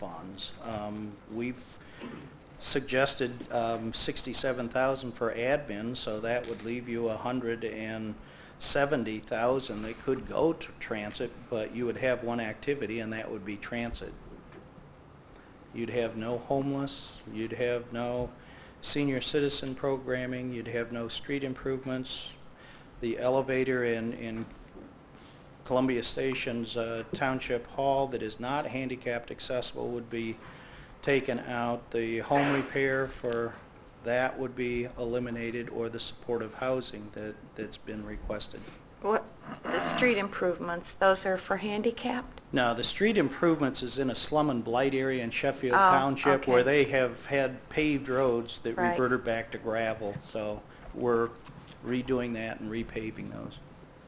funds. Um, We've suggested um, 67,000 for admin, so that would leave you 170,000 that could go to transit, but you would have one activity, and that would be transit. You'd have no homeless, you'd have no senior citizen programming, you'd have no street improvements. The elevator in, in Columbia Station's uh, Township Hall that is not handicapped accessible would be taken out. The home repair for that would be eliminated, or the supportive housing that, that's been requested. What, the street improvements, those are for handicapped? Now, the street improvements is in a slum and blight area in Sheffield Oh, Township okay. where they have had paved roads that Right. reverted back to gravel, so we're redoing that and repaving those.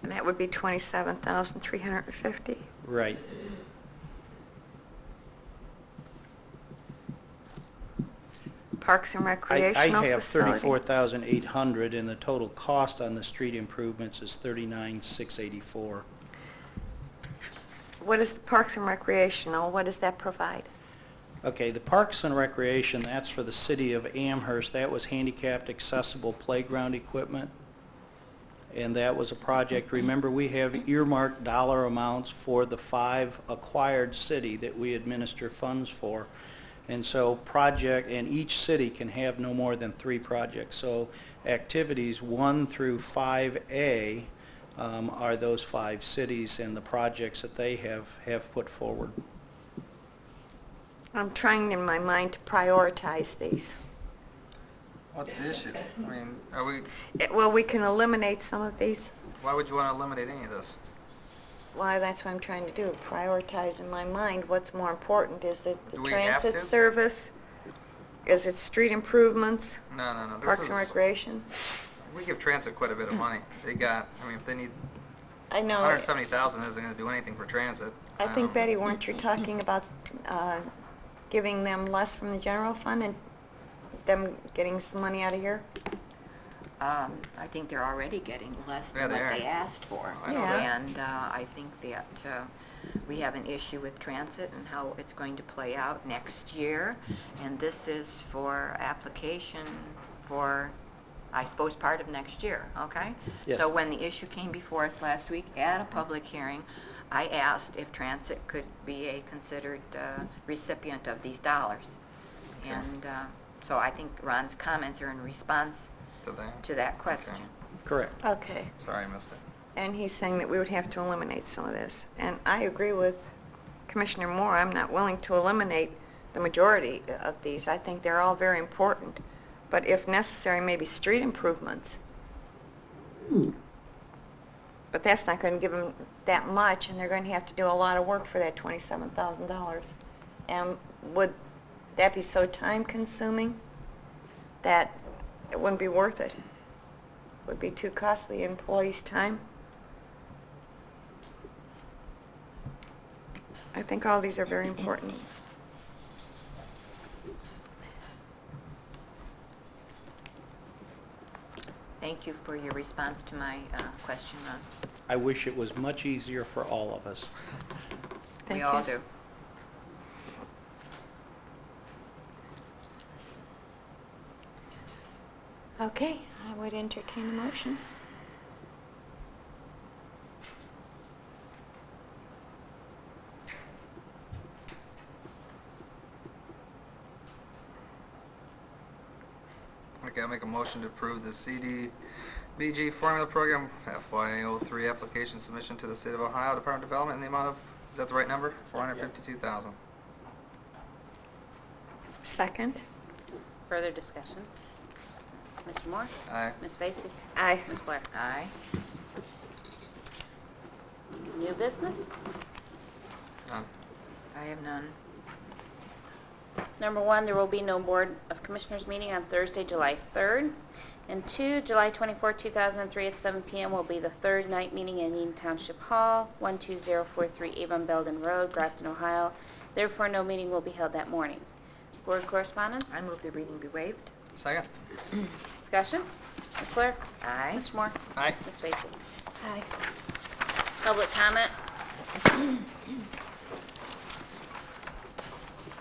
And that would be 27,350. Right. Parks and I, I recreational have facility. thirty-four thousand eight hundred, and the total cost on the street improvements is thirty-nine six eighty-four. What is the parks and recreational, what does that provide? Okay, the Parks and Recreation, that's for the city of Amherst, that was handicapped accessible playground equipment. And that was a project, remember, we have earmarked dollar amounts for the five acquired city that we administer funds for. And so project, and each city can have no more than three projects. So activities one through five A um, are those five cities and the projects that they have, have put forward. I'm trying in my mind to prioritize these. What's the issue? I mean, are we, It- Eh, Well, we can eliminate some of these. why would you want to eliminate any of this? Why, that's what I'm trying to do, prioritize in my mind what's more important. Is it the Do we have transit to? service? Is it street improvements, No, no, no, this parks is, and recreation? we give transit quite a bit of money. They got, I mean, if they need, I know. hundred and seventy thousand isn't gonna do anything for transit. I think, Um, Betty, weren't you talking about uh, giving them less from the general fund and them getting some money out of here? Um, I think they're already getting less Yeah, than they what are. they asked for. I know that. And, uh, I think that, uh, we have an issue with transit and how it's going to play out next year. And this is for application for, I suppose, part of next year, okay? Yes. So when the issue came before us last week at a public hearing, I asked if transit could be a considered, uh, recipient of these dollars. And, uh, so I think Ron's comments are in response To that? to that question. Correct. Okay. Okay. Sorry, I missed it. And he's saying that we would have to eliminate some of this. And I agree with Commissioner Moore, I'm not willing to eliminate the majority of these. I think they're all very important. But if necessary, maybe street improvements. But that's not going to give them that much, and they're going to have to do a lot of work for that $27,000. And would that be so time-consuming that it wouldn't be worth it? Would be too costly employees' time? I think all these are very important. Thank you for your response to my uh, question, Ron. I wish it was much easier for all of us. Thank We all you. do. Okay, I would entertain a motion. Okay, I'll make a motion to approve the CDBG formula program FY oh three application submission to the state of Ohio Department of Development in the amount of, is that the right number? Four hundred fifty-two thousand. Second? Further discussion? Mr. Moore? Aye. Ms. Vacy? Aye. Ms. Blair? Aye. New business? None. I have none. Number one, there will be no Board of Commissioners meeting on Thursday, July 3rd. And two, July 24, 2003 at 7 p.m. will be the third night meeting in Eaton Township Hall, 12043 Avon Belden Road, Grafton, Ohio. Therefore, no meeting will be held that morning. Board correspondence? I move the reading be waived. Second? Discussion? Ms. Blair? Aye. Mr. Moore? Aye. Ms. Vacy? Aye. Public comment?